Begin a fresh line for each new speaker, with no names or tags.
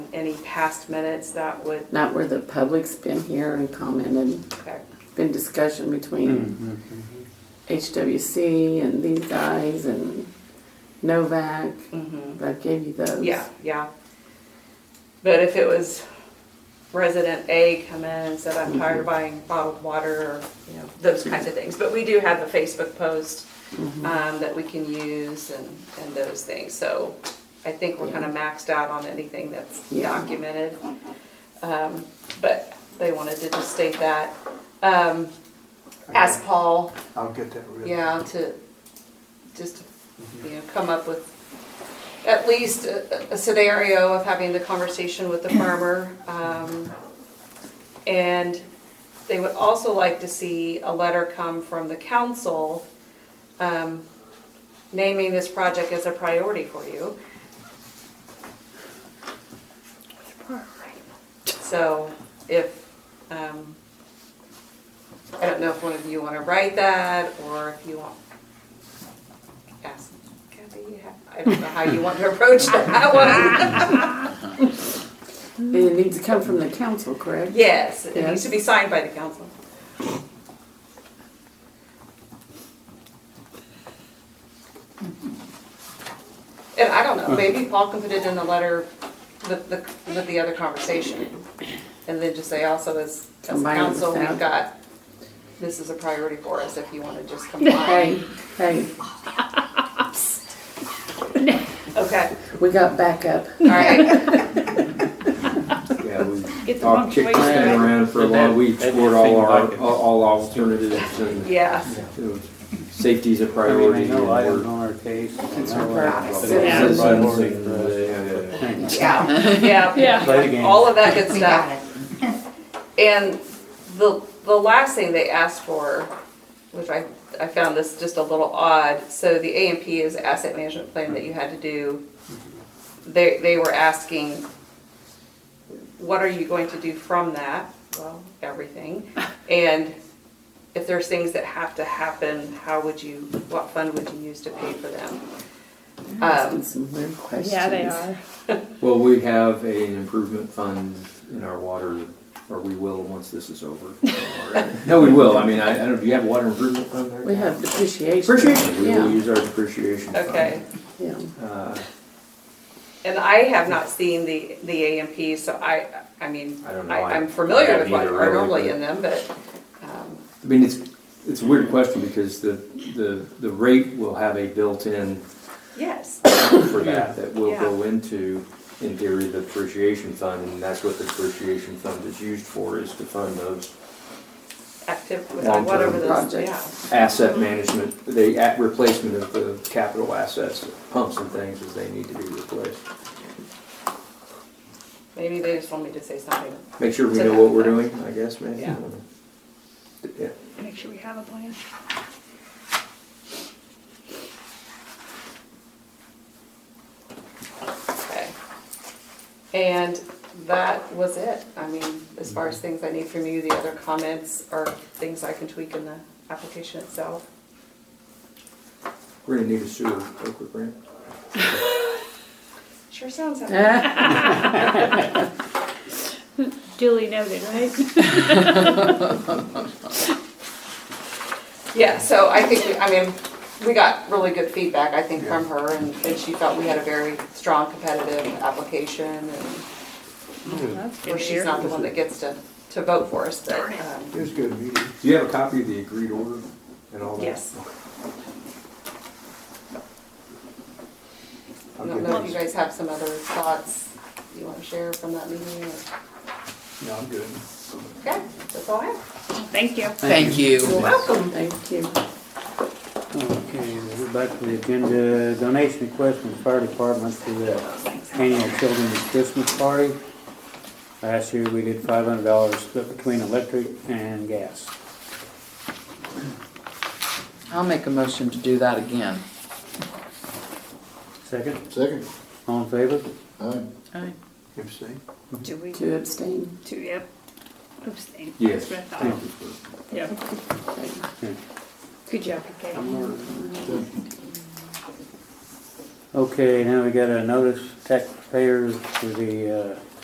any past minutes that would,
Not where the public's been here and commented,
okay.
been discussion between HWC and these guys and Novak.
Mhm.
I gave you those.
Yeah, yeah. But if it was resident A come in and said, I'm tired of buying bottled water, or, you know, those kinds of things. But we do have a Facebook post, um, that we can use and, and those things. So I think we're kind of maxed out on anything that's
Yeah.
documented. Um, but they wanted to just state that. Um, ask Paul,
I'll get that written.
yeah, to, just, to, you know, come up with at least a, a scenario of having the conversation with the farmer. um, And they would also like to see a letter come from the council um, naming this project as a priority for you. So if, um, I don't know if one of you want to write that, or if you want, ask Kathy, I don't know how you want to approach that one.
And it needs to come from the council, correct?
Yes, it needs to be signed by the council. And I don't know, maybe Paul can put it in the letter with the, with the other conversation. And then just say also as, as
Combine it with
council, we've got,
that.
this is a priority for us if you want to just
Hey,
combine.
hey,
Okay,
we got backup.
all right,
Yeah, we
Get the
all kicked
punctuation
that
right.
around for a while, we explored all our, all alternatives and
yeah.
you know, safety's a
I mean, I
priority. and
know I don't
we're-
know our case.
It's
I know
our
our-
priority.
Yeah,
Citizens.
yeah, yeah.
Yeah, yeah.
Yeah.
Play the game.
all of that good stuff. And the, the last thing they asked for, which I, I found this just a little odd, so the A and P is asset management plan that you had to do. They, they were asking, what are you going to do from that? Well, everything. And if there's things that have to happen, how would you, what fund would you use to pay for them? Um,
Asking some weird questions.
Yeah, they are.
Well, we have an improvement fund in our water, or we will once this is over. No, we will, I mean, I, I don't, do you have water improvement fund there?
We have depreciation.
Depreciation, we will
Yeah,
use our depreciation fund.
okay.
yeah.
Uh,
And I have not seen the, the AMP, so I, I mean,
I don't know.
I- I'm
I-
familiar
I
with what
haven't
are
either,
normally
really,
in them, but, um,
I mean, it's, it's a weird question because the, the, the rate will have a built-in
yes.
for that, that will go into, in theory, the depreciation fund, and that's what the depreciation fund is used for, is to fund those
Active,
Long-term
whatever this, yeah.
projects.
asset
Mm-hmm.
management, the at- replacement of the capital assets, pumps and things as they need to be replaced.
Maybe they just want me to say something.
Make sure we
So
know what we're doing, I guess, maybe.
Yeah.
Yeah.
Make sure we have a plan.
Okay. And that was it. I mean, as far as things I need from you, the other comments are things I can tweak in the application itself.
We're gonna need a sewer, Oakwood Grant.
Sure sounds. like-
Ah,
Duly noted, right?
Yeah, so I think, we- I mean, we got really good feedback, I think, from her, and and she felt we had a very strong competitive application, and
That's
or
good to
she's
hear.
not the one that gets to, to vote for us, but,
It
um,
was a good meeting.
Do you have a copy of the agreed order and all that?
yes. I
I'll
don't
get
know if
these.
you guys have some other thoughts you want to share from that meeting, or-
No, I'm good.
okay, that's all I have.
Thank you.
Thank you.
You're welcome.
Thank you.
Okay, we're back to the agenda, donation request from the fire department for the annual children's Christmas party. Last year, we did five hundred dollars split between electric and gas.
I'll make a motion to do that again.
Second,
Second.
all in favor?
Aye.
Aye.
Do we,
To abstain.
do, yep. Abstain.
Yes.
That's what I
Thank
thought.
you.
Yep. Good job, Kate.
Okay, now we got a notice taxpayers for the uh,